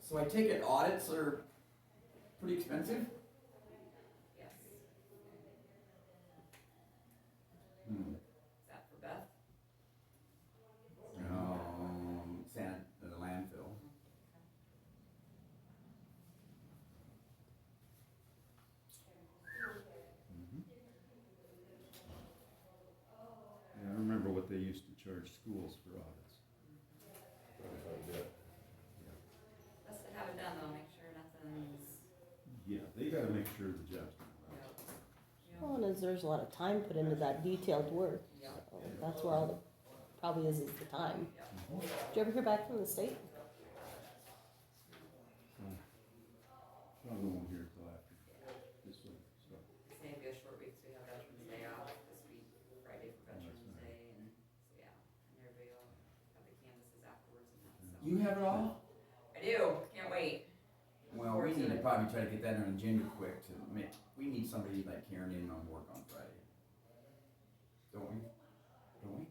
So I take it audits are pretty expensive? Yes. Is Hmm. that for Beth? Um, sand, the landfill. Yeah, I remember what they used to charge schools for audits. Best to have it done though, make sure nothing's, Yeah, they gotta make sure the job's you done right. know, you know, Well, and as there's a lot of time put into that detailed work, Yeah. so that's where all the, probably is, is the time. Did you ever hear back from the state? Probably won't hear till after this week, so. it's maybe a short week, so we have Veterans Day off this week, Friday for Veterans right. Day and, so yeah. And everybody will have the canvases afterwards and that, so. You have it all? I do, can't wait. Well, we need to probably try to get that on agenda quick to make, we need somebody like Karen in on work on Friday. Don't we? Don't we?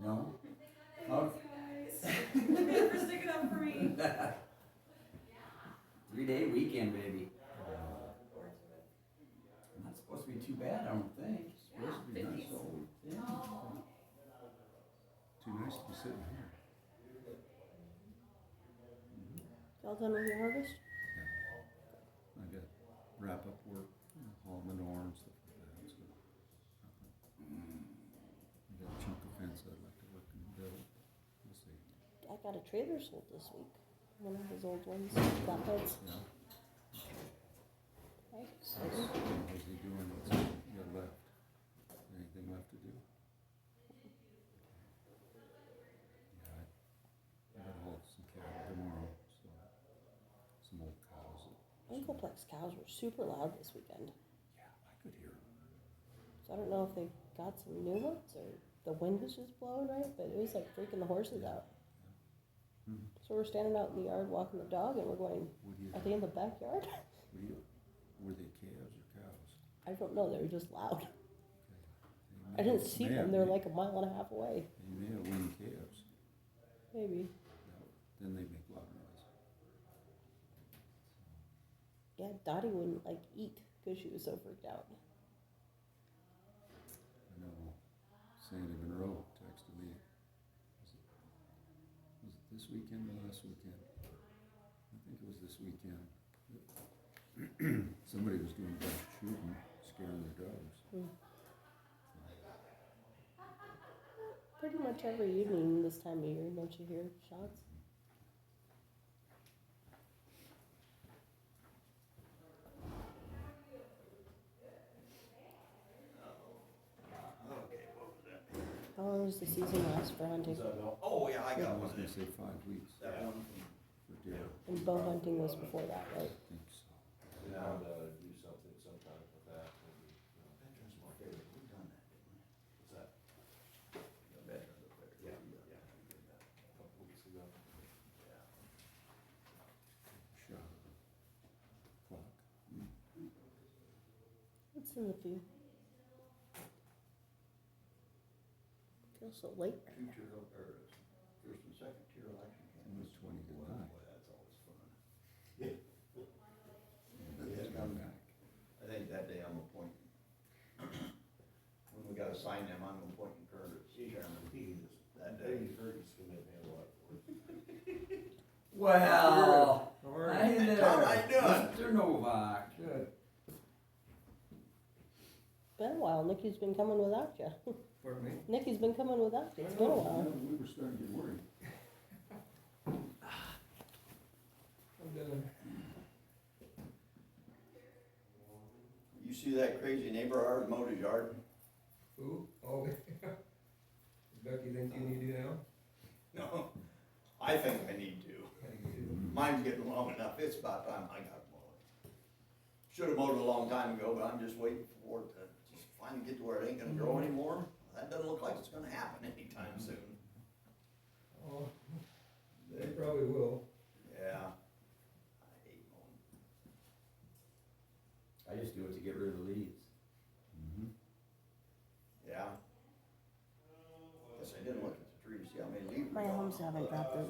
No? Oh. Thanks, guys. For sticking up for me. Three day weekend, baby. Forward to it. Not supposed to be too bad, I don't think. Supposed to be Yeah, nice, fifties. so- Yeah. too nice to be sitting here. Y'all done with your harvest? I got wrap up work, you know, haul manure and stuff like that, so. I got a chunk of fence I'd like to work and build, we'll see, I got a trailer sold this week, one of those old ones, flatbeds. yeah. Right, so- How's how's he doing, what's he got left, anything left to do? Yeah, I, I gotta haul some cattle tomorrow, so, some old cows. that- Anchorplex cows were super loud this weekend, Yeah, I could hear 'em. so I don't know if they got some new ones or the wind was just blowing right, but it was like freaking the horses out. Mhm. So we're standing out in the yard walking the dog, and we're going, What do you, are what they in the backyard? do you, were they calves or cows? I don't know, they were just loud. They I may didn't have- see may them, have- they're like a mile and a half away, They may have weaned calves, maybe. Now, then they make loud noise. Yeah, Dottie wouldn't like eat because she was so freaked out. I know Sandy Monroe texted me. Was it, was it this weekend or last weekend? I think it was this weekend. Somebody was doing dog shooting, scaring their dogs. Pretty much every evening this time of year, don't you hear shots? How long does Oh, the season last for hunting? Oh, yeah, I I was gonna say five weeks That one from for deer, And bow hunting was before that, right? I think so. And I would, uh, do something sometime with that, maybe, you know, Veterans Market, we've done that, didn't what's that, we? The Veterans Affairs. Yeah, yeah. a couple weeks ago? Shot. Clock. What's in the view? Feels so late. Future of, or first and second tier election candidates. It was 20 to Boy, nine. Boy, that's always fun. And Yeah. they come back. I think that day I'm appointing. When we gotta sign them, I'm appointing Curtis chairman that day. Dave Fergus can make me a lot of work. Well, Or, hi there. All right, Mr. Novak. Been a while. Nikki's been coming without you. pardon me? Nikki's been coming without you. It's been a while. Yeah, We were starting to get worried. You see that crazy neighbor of ours mowed his yard? Who? Oh, Becky think you need to now? No, I think I need to. I think you do. Mine's getting long enough, it's about time I got mowed. Should've mowed it a long time ago, but I'm just waiting for it to just finally get to where it ain't gonna grow anymore. That doesn't look like it's gonna happen anytime soon. Oh, they probably will. Yeah. I hate mowing. I just do it to get rid of the leaves. Mhm. Yeah. Guess I didn't look at the trees, see how many leaves. My were gone. homes haven't dropped their